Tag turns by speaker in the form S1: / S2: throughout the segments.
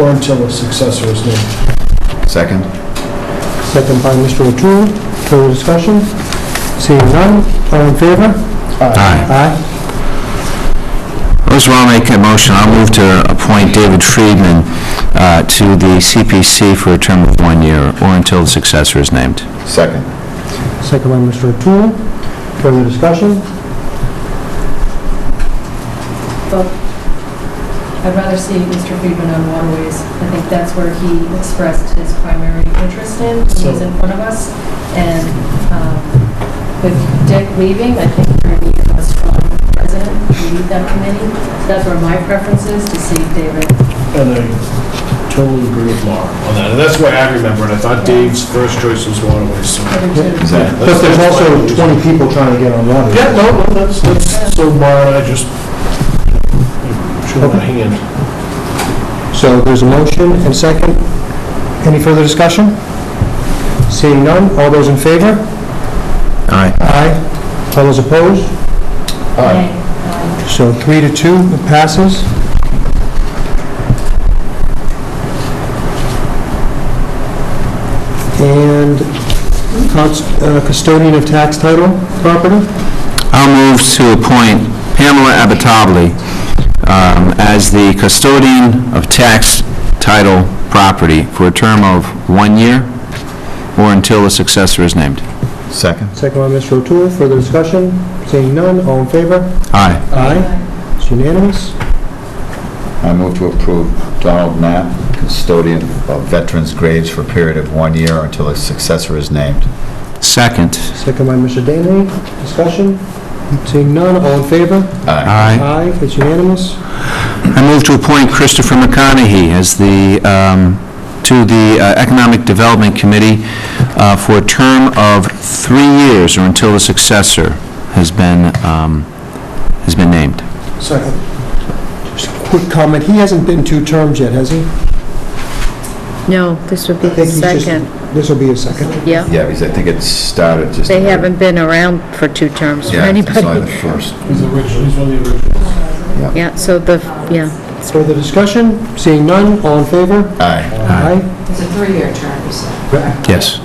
S1: or until a successor is named.
S2: Second?
S3: Second by Mr. O'Toole. Further discussion? Seeing none, all in favor?
S2: Aye.
S3: Aye.
S2: First of all, make a motion, I'll move to appoint David Friedman uh, to the CPC for a term of one year or until the successor is named. Second.
S3: Second by Mr. O'Toole. Further discussion?
S4: I'd rather see Mr. Friedman on waterways. I think that's where he expressed his primary interest in, when he's in front of us. And um, with Dick leaving, I think we're going to need a strong president to lead that committee. That's where my preference is, to see David.
S1: And I totally agree with Laura on that. And that's why I remember it. I thought Dave's first choice was waterways, so.
S4: put into-
S3: Plus, there's also 20 people trying to get on water.
S1: Yeah, no, no, that's, that's, so Laura and I just show my hand.
S3: So there's a motion and second. Any further discussion? Seeing none, all those in favor?
S2: Aye.
S3: Aye. All those opposed?
S4: Nay, um,
S3: So three to two, it passes. And cons- uh, custodian of tax title property?
S2: I'll move to appoint Pamela Abitabli um, as the custodian of tax title property for a term of one year or until a successor is named. Second.
S3: Second by Mr. O'Toole, further discussion? Seeing none, all in favor?
S2: Aye.
S3: Aye. It's unanimous.
S5: I move to approve Donald Knapp, custodian of veterans' graves for a period of one year or until a successor is named.
S2: Second.
S3: Second by Mr. Danley, discussion? Seeing none, all in favor?
S5: Aye.
S2: Aye.
S3: Aye, it's unanimous.
S2: I move to appoint Christopher McConaughey as the, um, to the uh, Economic Development Committee uh, for a term of three years or until a successor has been, um, has been named.
S1: Second.
S3: Just a quick comment, he hasn't been two terms yet, has he?
S6: No, this would be
S3: I think
S6: the
S3: he's just-
S6: second.
S3: This will be his second.
S6: Yeah,
S5: Yeah, because I think it started just...
S6: they haven't been around for two terms for
S5: Yeah, it's only
S6: anybody.
S5: the first.
S1: He's original, he's one of the originals.
S6: Yeah, so the, yeah,
S3: Further discussion? Seeing none, all in favor?
S5: Aye.
S3: Aye.
S7: It's a three-year term, you said.
S2: Yes.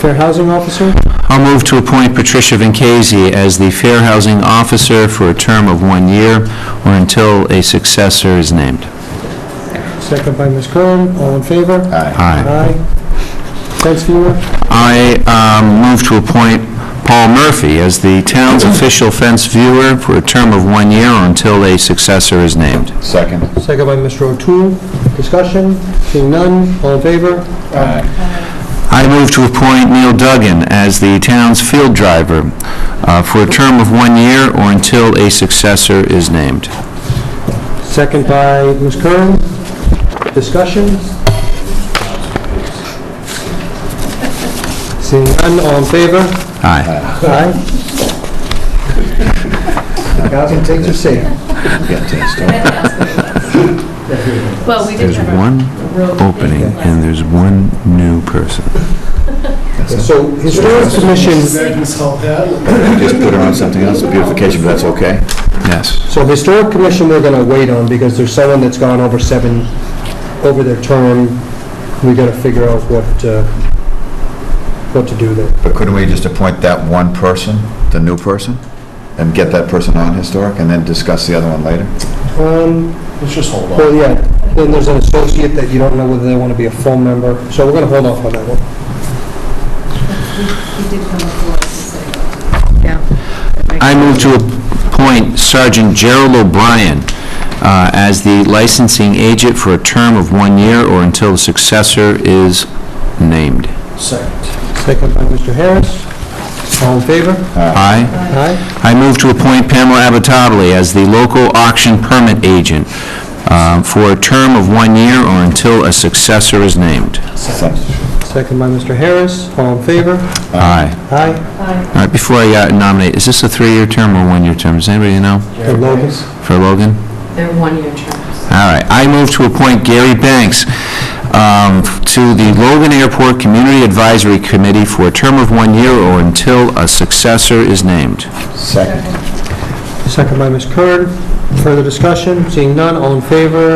S3: Fair Housing Officer,
S2: I'll move to appoint Patricia Vinkasey as the Fair Housing Officer for a term of one year or until a successor is named.
S3: second by Ms. Curran, all in favor?
S5: Aye.
S2: Aye.
S3: Aye. Thanks, viewer.
S2: I um, move to appoint Paul Murphy as the town's official fence viewer for a term of one year or until a successor is named.
S5: Second.
S3: Second by Mr. O'Toole. Discussion? Seeing none, all in favor?
S5: Aye.
S2: I move to appoint Neil Duggan as the town's field driver uh, for a term of one year or until a successor is named.
S3: Second by Ms. Curran. Discussion? Seeing none, all in favor?
S2: Aye.
S3: Aye. Housing takes your seat.
S5: Get to the start.
S4: Well, we did
S2: There's
S4: have our
S2: one
S4: road
S2: opening
S4: meeting last
S2: and there's one new person.
S3: So Historic Commission
S5: Just put her on something else, beautification, but that's okay?
S2: Yes.
S3: So Historic Commission, we're going to wait on because there's someone that's gone over seven, over their term. We got to figure out what, uh, what to do there.
S5: But couldn't we just appoint that one person, the new person, and get that person on historic, and then discuss the other one later?
S3: Um,
S1: Let's just hold on.
S3: Well, yeah, then there's an associate that you don't know whether they want to be a full member, so we're going to hold off on that one.
S4: week. He did come before us and say,
S2: I move to appoint Sergeant Gerald O'Brien uh, as the licensing agent for a term of one year or until a successor is named.
S1: Second.
S3: Second by Mr. Harris. All in favor?
S2: Aye.
S3: Aye.
S2: I move to appoint Pamela Abitabli as the local auction permit agent uh, for a term of one year or until a successor is named.
S3: Second by Mr. Harris. All in favor?
S2: Aye.
S3: Aye.
S4: "Hi,
S2: All right, before I uh, nominate, is this a three-year term or one-year term? Does anybody know
S3: And Logan?
S2: for Logan?
S7: They're one-year terms.
S2: All right, I move to appoint Gary Banks um, to the Logan Airport Community Advisory Committee for a term of one year or until a successor is named.
S5: Second.
S3: Second by Ms. Curran. Further discussion? Seeing none, all in favor?